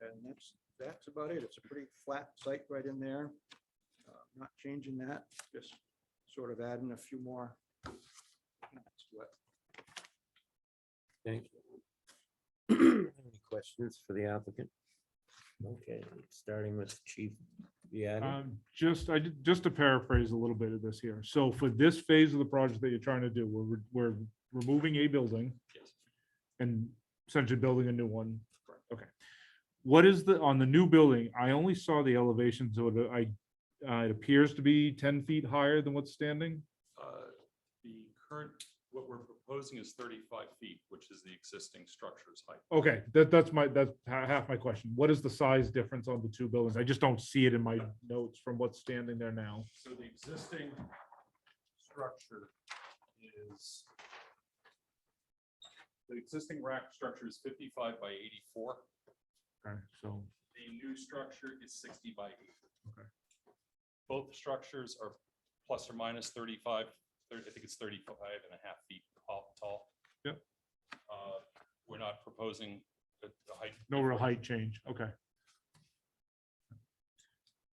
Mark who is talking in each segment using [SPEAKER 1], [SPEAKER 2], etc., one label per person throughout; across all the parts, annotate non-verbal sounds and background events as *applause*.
[SPEAKER 1] and that's, that's about it. It's a pretty flat site right in there. Uh, Not changing that, just sort of adding a few more. That's what
[SPEAKER 2] Thank *clears throat* you. Any questions for the applicant? Okay, starting with Chief Viadi.
[SPEAKER 3] Um, Just, I, did- just to paraphrase a little bit of this here. So for this phase of the project that you're trying to do, we're, re- we're removing a building and essentially building a new one. Okay. What is the, on the new building, I only saw the elevation, so it- I, uh, it appears to be ten feet higher than what's standing.
[SPEAKER 4] Uh, The current, what we're proposing is 35 feet, which is the existing structure's height.
[SPEAKER 3] Okay, that, that's my, that's ha- half my question. What is the size difference on the two buildings? I just don't see it in my notes from what's standing there now.
[SPEAKER 4] So the existing structure is, the existing rack structure is 55 by 84.
[SPEAKER 3] Okay, so.
[SPEAKER 4] The new structure is 60 by 80.
[SPEAKER 3] Okay.
[SPEAKER 4] Both structures are plus or minus 35, thir- I think it's 35 and a half feet tall- tall.
[SPEAKER 3] Yep.
[SPEAKER 4] Uh, We're not proposing the the height.
[SPEAKER 3] No real height change, okay.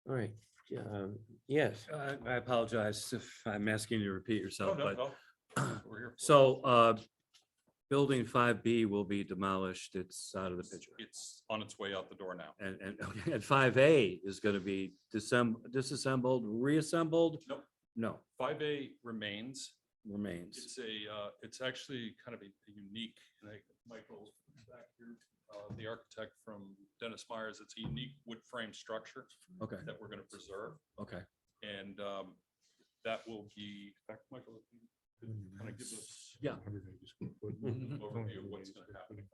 [SPEAKER 2] All right, yeah, um, yes,
[SPEAKER 5] I Uh, I apologize if I'm asking you to repeat
[SPEAKER 4] No,
[SPEAKER 5] yourself,
[SPEAKER 4] Oh, no,
[SPEAKER 5] but,
[SPEAKER 4] no.
[SPEAKER 5] *clears throat*
[SPEAKER 4] That's what we're here for.
[SPEAKER 5] so, uh, building five B will be demolished. It's out of the picture.
[SPEAKER 4] It's on its way out the door now.
[SPEAKER 5] And, and, *laughs* okay, and five A is gonna be dissemb- disassembled, reassembled?
[SPEAKER 4] Nope.
[SPEAKER 5] No,
[SPEAKER 4] Five A remains.
[SPEAKER 5] remains.
[SPEAKER 4] It's a, uh, it's actually kind of a a unique, and I- Michael's back here, uh, the architect from Dennis Myers, it's a unique wood frame structure
[SPEAKER 5] Okay,
[SPEAKER 4] that we're going to preserve.
[SPEAKER 5] okay.
[SPEAKER 4] And um, that will be, in fact, Michael, if you could kind of give us
[SPEAKER 5] Yeah. Mm-hmm.
[SPEAKER 4] an overview of what's going to happen.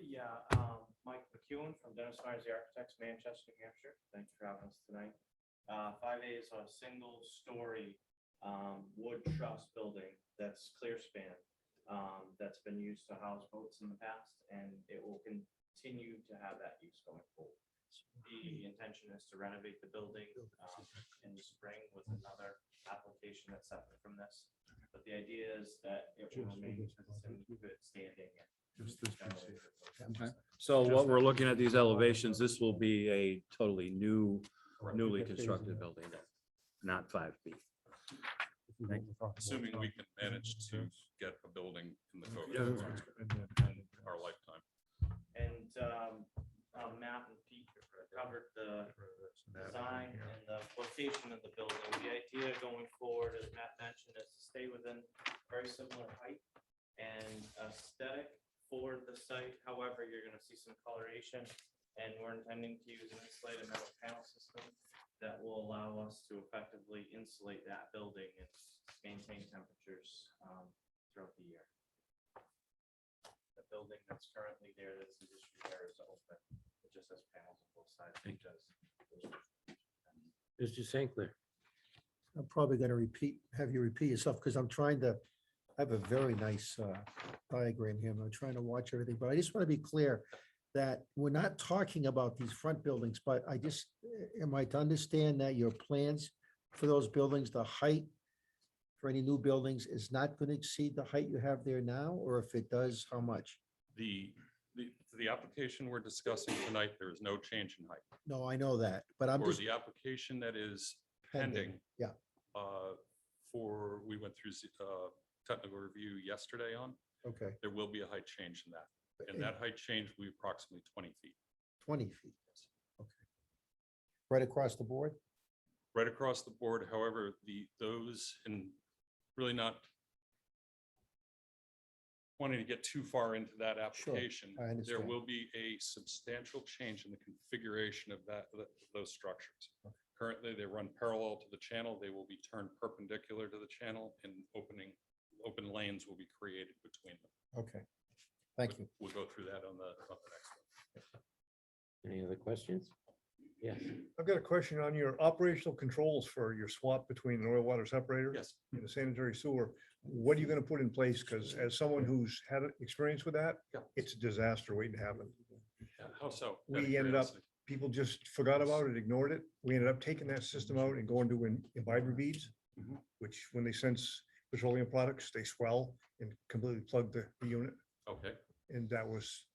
[SPEAKER 6] Yeah, um, Mike McEwen from Dennis Myers, the Architects, Manchester, New Hampshire. Thanks for having us tonight. Uh, five A is a single-story, um, wood truss building that's clear span. Um, that's been used to house boats in the past and it will continue to have that use going forward. The intention is to renovate the building, um, in the spring with another application that's separate from this. But the idea is that it will remain in good standing and
[SPEAKER 3] Just this piece here.
[SPEAKER 5] So what we're looking at these elevations, this will be a totally new, newly constructed building, not five B.
[SPEAKER 4] Assuming we can manage to get a building in the code
[SPEAKER 5] Yeah.
[SPEAKER 4] in our lifetime.
[SPEAKER 6] And um, uh, Matt and Pete covered the design and the location of the building. The idea going forward, as Matt mentioned, is to stay within very similar height and aesthetic for the site. However, you're gonna see some coloration. And we're intending to use an insulated metal panel system that will allow us to effectively insulate that building and maintain temperatures um, throughout the year the building that's currently there, that's the issue there is open. It just has panels on both sides because.
[SPEAKER 2] Mr. St. Clair.
[SPEAKER 7] I'm probably going to repeat, have you repeat yourself because I'm trying to, I have a very nice uh, diagram here. and I'm trying to watch everything, but I just want to be clear that we're not talking about these front buildings, but I just, am I to understand that your plans for those buildings, the height for any new buildings is not going to exceed the height you have there now, or if it does, how much?
[SPEAKER 4] The, the, the application we're discussing tonight, there is no change in height.
[SPEAKER 7] No, I know that, but I'm
[SPEAKER 4] For
[SPEAKER 7] just
[SPEAKER 4] the application that is
[SPEAKER 7] pending.
[SPEAKER 4] pending.
[SPEAKER 7] yeah.
[SPEAKER 4] uh, For, we went through z- uh, technical review yesterday on,
[SPEAKER 7] Okay,
[SPEAKER 4] there will be a height change in that. And
[SPEAKER 7] in
[SPEAKER 4] that height change will be approximately 20 feet.
[SPEAKER 7] twenty feet. Okay. Right across the board?
[SPEAKER 4] Right across the board, however, the, those, and really not wanting to get too far into that application.
[SPEAKER 7] I
[SPEAKER 4] There
[SPEAKER 7] understand.
[SPEAKER 4] will be a substantial change in the configuration of that, th- those structures. Currently, they run parallel to the channel. They will be turned perpendicular to the channel and opening, open lanes will be created between them.
[SPEAKER 7] Okay, thank you.
[SPEAKER 4] We'll go through that on the, on the next one.
[SPEAKER 2] Any other questions? Yes.
[SPEAKER 8] I've got a question on your operational controls for your swap between an oil water separator
[SPEAKER 4] Yes.
[SPEAKER 8] and the sanitary sewer. What are you gonna put in place? Because as someone who's had experience with that,
[SPEAKER 4] Yeah.
[SPEAKER 8] it's a disaster waiting to happen.
[SPEAKER 4] How so?
[SPEAKER 8] We
[SPEAKER 4] Out of
[SPEAKER 8] ended up-
[SPEAKER 4] curiosity.
[SPEAKER 8] People just forgot about it, ignored it. We ended up taking that system out and going to im- imbiber beads,
[SPEAKER 4] Mhm.
[SPEAKER 8] which when they sense petroleum products, they swell and completely plug the the unit.
[SPEAKER 4] Okay.
[SPEAKER 8] And that was